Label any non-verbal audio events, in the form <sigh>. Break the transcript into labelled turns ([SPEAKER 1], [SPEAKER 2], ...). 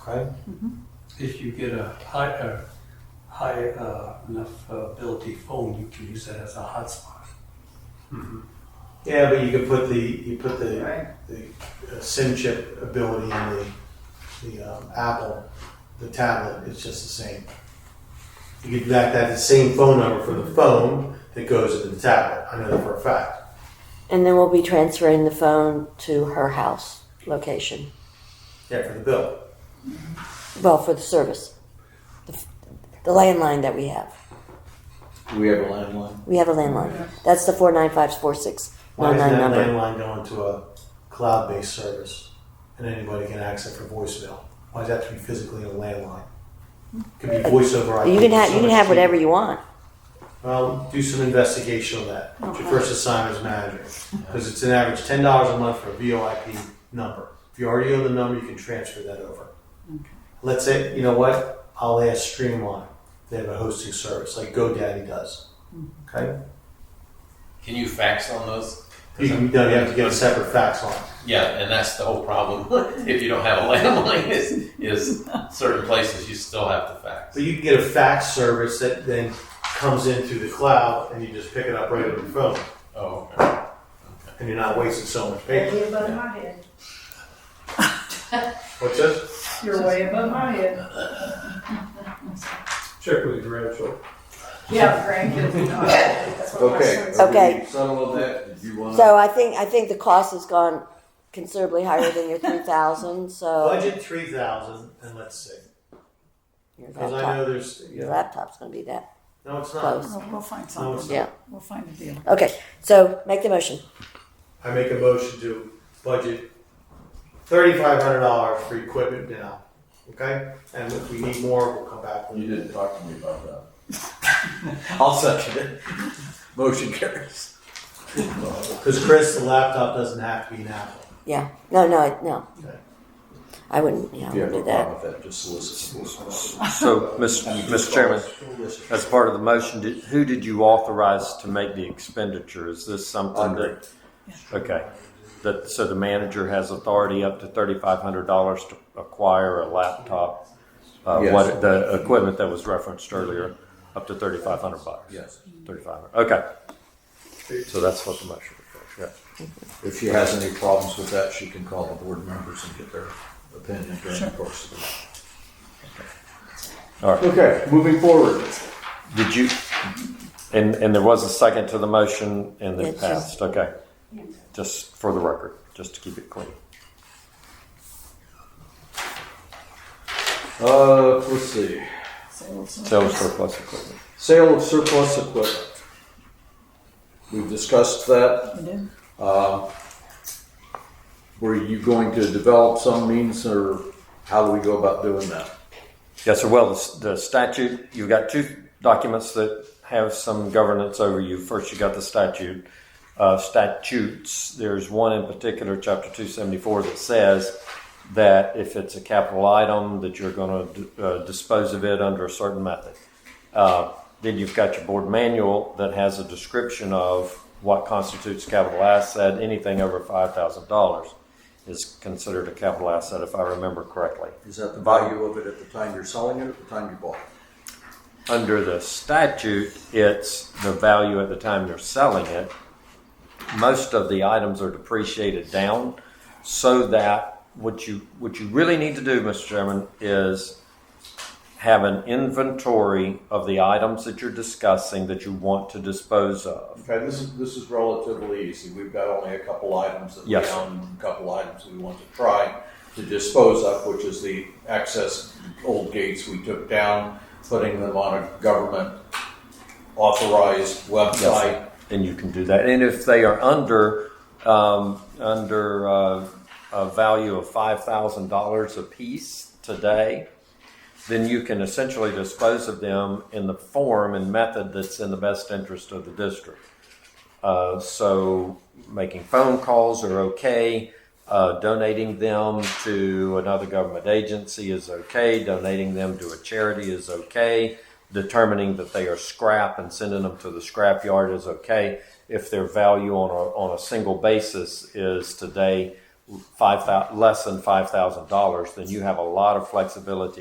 [SPEAKER 1] Okay,
[SPEAKER 2] If you get a high, uh, high uh, enough uh, ability phone, you can use that as a hotspot.
[SPEAKER 1] yeah, but you could put the, you put the,
[SPEAKER 3] Right.
[SPEAKER 1] the uh, SIM chip ability in the, the um, Apple, the tablet, it's just the same. You could back that the same phone number for the phone that goes into the tablet, I know that for a fact.
[SPEAKER 4] And then we'll be transferring the phone to her house location.
[SPEAKER 1] Yeah, for the bill.
[SPEAKER 4] Well, for the service, the, f- the landline that we have.
[SPEAKER 5] Do we have a landline?
[SPEAKER 4] We have a landline. That's the four nine five four six
[SPEAKER 1] Why
[SPEAKER 4] one
[SPEAKER 1] is
[SPEAKER 4] nine
[SPEAKER 1] that
[SPEAKER 4] number.
[SPEAKER 1] landline going to a cloud-based service and anybody can access for voicemail? Why does that have to be physically in a landline? Could be voice over IP.
[SPEAKER 4] You can have
[SPEAKER 1] so
[SPEAKER 4] you can
[SPEAKER 1] much
[SPEAKER 4] have whatever
[SPEAKER 1] cheaper.
[SPEAKER 4] you want.
[SPEAKER 1] Well, do some investigation on that. It's Your first assignment as manager, because it's an average ten dollars a month for a VoIP number. If you already own the number, you can transfer that over. Let's say, you know what? I'll ask Streamline. They have a hosting service like GoDaddy does. Okay,
[SPEAKER 6] Can you fax on those?
[SPEAKER 1] you can, no, you have to get a separate fax line.
[SPEAKER 6] Yeah, and that's the whole problem. <laughs> if you don't have a landline, is, is certain places you still have to fax.
[SPEAKER 1] But you can get a fax service that then comes in through the cloud, and you just pick it up right on your phone,
[SPEAKER 6] Oh, okay.
[SPEAKER 1] and you're not wasting so much paper.
[SPEAKER 3] Way above my head.
[SPEAKER 1] What's this?
[SPEAKER 3] You're way above my head.
[SPEAKER 7] Check with your grandchildren.
[SPEAKER 3] Yeah, grandkids. That's what my
[SPEAKER 5] Okay.
[SPEAKER 3] son's-
[SPEAKER 4] Okay.
[SPEAKER 5] we Settle on that, do you want?
[SPEAKER 4] So I think I think the cost has gone considerably higher than your three thousand.
[SPEAKER 1] <laughs>
[SPEAKER 4] So
[SPEAKER 1] Budget three thousand, and let's see.
[SPEAKER 4] your
[SPEAKER 1] Because I know
[SPEAKER 4] laptop,
[SPEAKER 1] there's
[SPEAKER 4] your
[SPEAKER 1] yeah.
[SPEAKER 4] laptop's going to be that
[SPEAKER 1] No, it's not.
[SPEAKER 4] close.
[SPEAKER 3] We'll find
[SPEAKER 1] No, it's
[SPEAKER 3] something.
[SPEAKER 1] not.
[SPEAKER 4] Yeah.
[SPEAKER 3] We'll find a deal.
[SPEAKER 4] Okay. So make the motion.
[SPEAKER 1] I make a motion to budget thirty-five hundred dollars for equipment now, okay? And if we need more, we'll come back.
[SPEAKER 5] You
[SPEAKER 1] with it.
[SPEAKER 5] didn't talk to me about that. <laughs> I'll second it. Motion carries.
[SPEAKER 1] Because Chris, the laptop doesn't have to be an Apple.
[SPEAKER 4] Yeah. No. No. I- No.
[SPEAKER 1] Okay.
[SPEAKER 4] I wouldn't. Yeah. I
[SPEAKER 5] If you have
[SPEAKER 4] wouldn't
[SPEAKER 5] a
[SPEAKER 4] do that.
[SPEAKER 5] problem with that, just solicit.
[SPEAKER 8] So, Mr. Mr. Chairman, as part of the motion, did- who did you authorize to make the expenditure? Is this something that? Okay, that, so the manager has authority up to thirty-five hundred dollars to acquire a laptop? Uh,
[SPEAKER 5] Yes.
[SPEAKER 8] what, the equipment that was referenced earlier, up to thirty-five hundred bucks?
[SPEAKER 5] Yes.
[SPEAKER 8] Thirty-five hundred, okay. So that's what the motion was, yeah.
[SPEAKER 5] If she has any problems with that, she can call the board members and get their opinion during the course of the.
[SPEAKER 8] All right.
[SPEAKER 5] Okay, moving forward.
[SPEAKER 8] Did you, and, and there was a second to the motion and it
[SPEAKER 4] It's just-
[SPEAKER 8] passed, okay? Just for the record, just to keep it clean.
[SPEAKER 5] Uh, let's see.
[SPEAKER 3] So we'll-
[SPEAKER 8] Sale of surplus equipment.
[SPEAKER 5] Sale of surplus equipment. We've discussed that.
[SPEAKER 3] We did.
[SPEAKER 5] Um, Were you going to develop some means or how do we go about doing that?
[SPEAKER 8] Yes, sir. Well, the s- the statute, you've got two documents that have some governance over you. First, you got the statute, uh, statutes. There's one in particular, chapter two seventy-four, that says that if it's a capital item, that you're gonna d- uh, dispose of it under a certain method. Uh, Then you've got your board manual that has a description of what constitutes capital asset. Anything over five thousand dollars is considered a capital asset, if I remember correctly.
[SPEAKER 5] Is that the value of it at the time you're selling it, or at the time you bought it?
[SPEAKER 8] under the statute, it's the value at the time you're selling it. Most of the items are depreciated down, so that what you what you really need to do, Mr. Chairman, is have an inventory of the items that you're discussing that you want to dispose of.
[SPEAKER 5] Okay, this is, this is relatively easy. We've got only a couple items that we
[SPEAKER 8] Yes.
[SPEAKER 5] own, a couple items we want to try to dispose of, which is the access old gates we took down, putting them on a government authorized website.
[SPEAKER 8] Then you can do that, and if they are under um, under uh, a value of five thousand dollars a piece today, then you can essentially dispose of them in the form and method that's in the best interest of the district. Uh, so making phone calls are okay. Uh, donating them to another government agency is okay. Donating them to a charity is okay. Determining that they are scrap and sending them to the scrap yard is okay. If their value on a, on a single basis is today five thou, less than five thousand dollars, then you have a lot of flexibility